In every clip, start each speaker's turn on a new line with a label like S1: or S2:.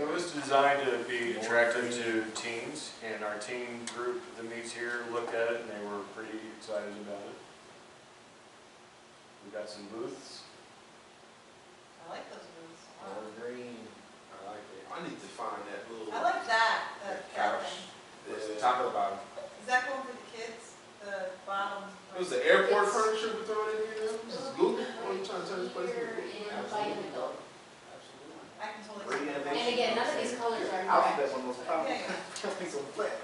S1: It was designed to be attractive to teens, and our teen group that meets here looked at it, and they were pretty excited about it. We got some booths.
S2: I like those moves a lot.
S3: Evergreen.
S4: I like that. I need to find that little.
S2: I like that, that, that
S4: Couch.
S2: thing.
S4: What's the top
S3: Taco bottom.
S2: Is that one for the kids, the bottom?
S4: It was the airport furniture we throwing in here now? This is Google, what are you trying to turn this place into?
S5: Here
S4: Google?
S5: and by
S4: Absolutely.
S5: Indigo.
S4: Absolutely.
S2: I can totally. see that.
S5: And again, none of these colors are correct.
S3: Alphabet's one of those
S2: Yeah,
S3: problems.
S2: yeah.
S3: Things on flat.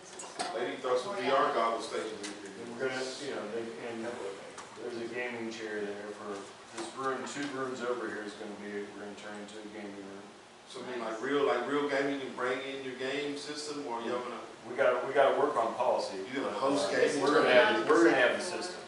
S5: This is-
S4: They need to throw some VR goggles stations
S1: And
S4: in here.
S1: We're gonna, you know, they, and there's a gaming chair there for, this room, two rooms over here is gonna be, we're gonna turn into a gaming room.
S4: So I mean, like real, like real gaming, you can bring in your game system or you're gonna,
S1: We gotta, we gotta work on policy.
S4: You gonna
S1: but,
S4: host
S1: uh,
S4: games?
S1: We're gonna have, we're gonna have a system.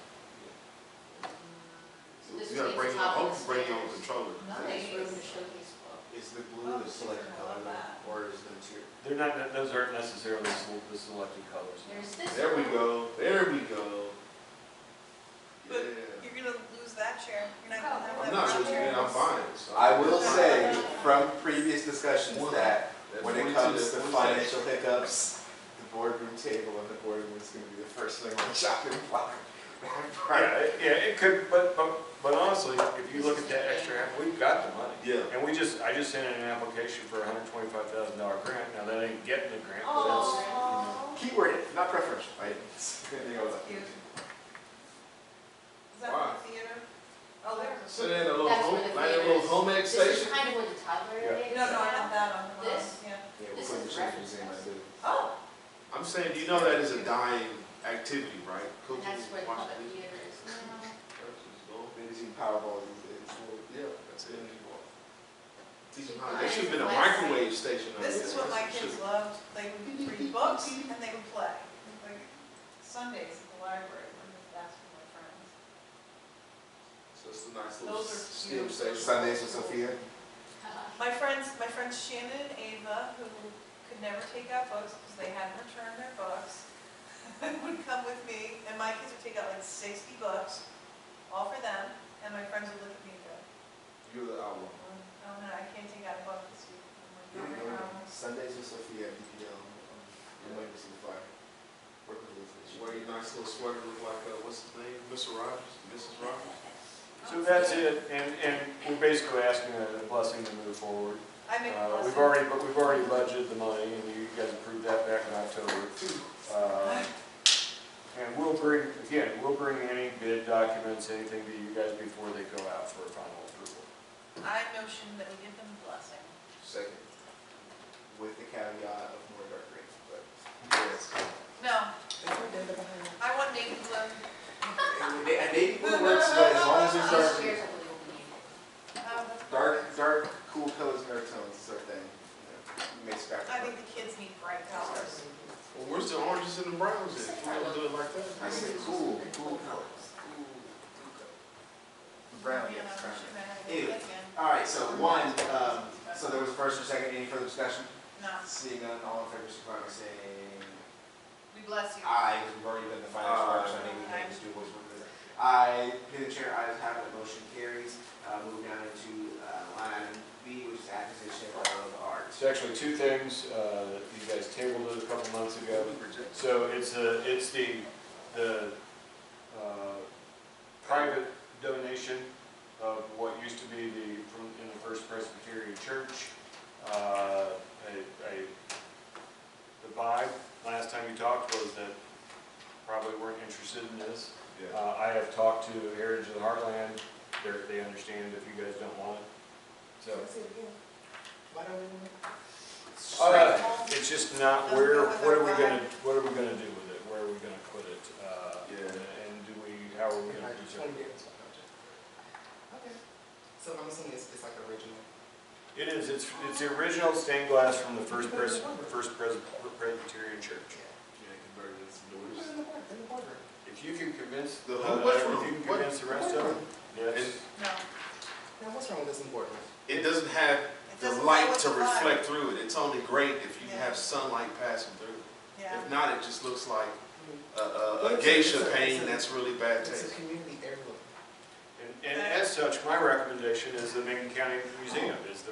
S5: So this
S4: you gotta bring,
S5: means
S4: your-
S5: it's up
S4: hope
S5: on the
S4: you bring your own
S5: stairs.
S4: controller.
S5: Nice room to showcase book.
S3: Is the blue the selected color or is the tier?
S1: They're not, those aren't necessarily sel- the selected colors.
S5: There's this.
S4: There we go,
S5: one.
S4: there we go. Yeah.
S2: But You're gonna lose that chair. You're not gonna have that.
S4: I'm not losing it, I'm buying it. so-
S3: I will say from previous discussions that
S4: That's
S3: when it
S4: 22,
S3: comes
S4: that's
S3: to
S4: 22.
S3: financial hiccups, the boardroom table and the boardroom is gonna be the first thing on the shopping block.
S1: Yeah, it- yeah, it could, but, but, but honestly, if you look at that extra half, we've got the money.
S4: Yeah.
S1: And we just, I just sent in an application for a hundred twenty-five thousand dollar grant, now that ain't getting the grant, but that's,
S2: Oh,
S3: Keyword, not preferential, right? It's gonna be all
S2: that's
S3: that.
S2: cute. Is that
S4: Wow.
S2: the theater? Oh, there's
S4: So they had a little
S5: That's
S4: home,
S5: where the
S4: like a
S5: theater
S4: little
S5: is.
S4: home ed
S5: This is
S4: station.
S5: kind of where the toddler
S1: Yeah.
S2: a.
S5: is.
S2: No, no, I have that on. the
S5: This?
S2: bottom, Yeah.
S3: Yeah, we'll
S5: This
S3: put
S5: is
S3: the
S5: reference
S3: children's in, I
S5: house.
S3: do.
S2: Oh,
S4: I'm saying, you know that is a dying activity, right?
S5: And
S4: Cooking,
S5: that's where the
S4: watching
S5: public
S4: TV.
S5: theater is.
S3: Maybe some Powerball these days.
S4: Yeah, that's it. Teach them
S5: Keep
S4: how,
S5: an
S4: there
S5: eye
S4: should have
S5: on
S4: been a
S5: the website.
S4: microwave station. out
S2: this
S4: there.
S2: is what my
S4: That's
S2: kids
S4: should-
S2: loved. They would read books and they would play. Like Sundays at the library, when that's with my friends.
S4: So it's a nice little
S2: Those are
S4: STEM
S2: cute.
S4: station.
S3: Sundays with Sophia.
S5: Uh,
S2: My friends, my friends Shannon and Ava, who could never take out books because they hadn't returned their books, would come with me, and my kids would take out like sixty books, all for them, and my friends would look at me and go,
S4: You're the outlaw.
S2: "Oh, no, I can't take out a book this
S3: You
S2: week. I'm like,
S3: know,
S2: "Not right now."
S3: Sundays with Sophia, you know, you might see the fire. Work with
S4: Wear your nice little sweater, look like, uh, what's his name, Mr. Rogers, Mrs. Rogers?
S1: so that's it, and, and we're basically asking a blessing to move forward.
S2: I make a
S1: Uh, we've
S2: blessing.
S1: already, but we've already budgeted the money, and you guys approved that back in October. Uh, And we'll bring, again, we'll bring any bid documents, anything to you guys before they go out for final approval.
S2: I notion that we give them a blessing.
S3: Second. With the caveat of more dark green, but. yes.
S2: No, I want navy blue.
S3: And they- and they- it works, but as long as there's dark
S5: These chairs I believe will be needed.
S2: Um,
S3: Dark, dark, cool colors and earth tones is our thing. You know, Mix back.
S2: I think the kids need bright colors.
S4: Well, where's the oranges and the browns at? You wanna do it like that?
S3: I said cool, cool colors. Cool, cool colors. Brown,
S2: You know,
S3: yes, brown.
S2: should I have a
S3: Ew.
S2: blessing?
S3: All right, so one, um, so there was a first and second, any further discussion?
S2: No,
S3: Seeing none, all in favor, signify by saying
S2: we bless you.
S3: Aye, because we've already done the financial
S4: Aye.
S3: action, I think we can just do a voice vote for that. Aye, Uh, through the chair, ayes have it, motion carries. Uh, moving down into, uh, line item B, which is acquisition of art.
S1: So actually, two things, uh, you guys tabled it a couple months ago.
S4: Reject.
S1: So it's a, it's the, the, uh, private donation of what used to be the, from, in the First Presbyterian Church. Uh, I, I, the vibe, last time you talked was that probably weren't interested in this.
S4: Yeah.
S1: Uh, I have talked to Heritage of the Heartland, they're, they understand if you guys don't want it, so.
S3: Why don't we?
S1: Uh, It's just not where, what are we gonna, what are we gonna do with it, where are we gonna put it? Uh,
S4: Yeah.
S1: And do we, how are we gonna do it?
S3: Okay. So I'm assuming it's, it's like original.
S1: It is, it's, it's the original stained glass from the First Pres, First Pres- Presbyterian Church.
S4: Yeah, converted it some
S3: Put
S4: doors.
S3: it in the board, in the boardroom.
S1: If you can convince the,
S4: The
S1: uh,
S4: whole mushroom,
S1: if you can
S4: what-
S1: convince the rest of them, yes.
S2: No.
S3: Now, what's wrong with this in the boardroom?
S4: It doesn't have
S2: It
S4: the
S2: doesn't play
S4: light
S2: with
S4: to
S2: the vibe.
S4: reflect through it. It's only great if you
S2: Yeah.
S4: have sunlight passing through it.
S2: Yeah.
S4: If not, it just looks like a- a,
S3: Well,
S4: a
S3: it's a-
S4: geisha
S3: it's a- it's
S4: painting
S3: a-
S4: that's really bad
S3: It's
S4: taste.
S3: a community heirloom.
S1: And and as such, my recommendation is the Macon County Museum is the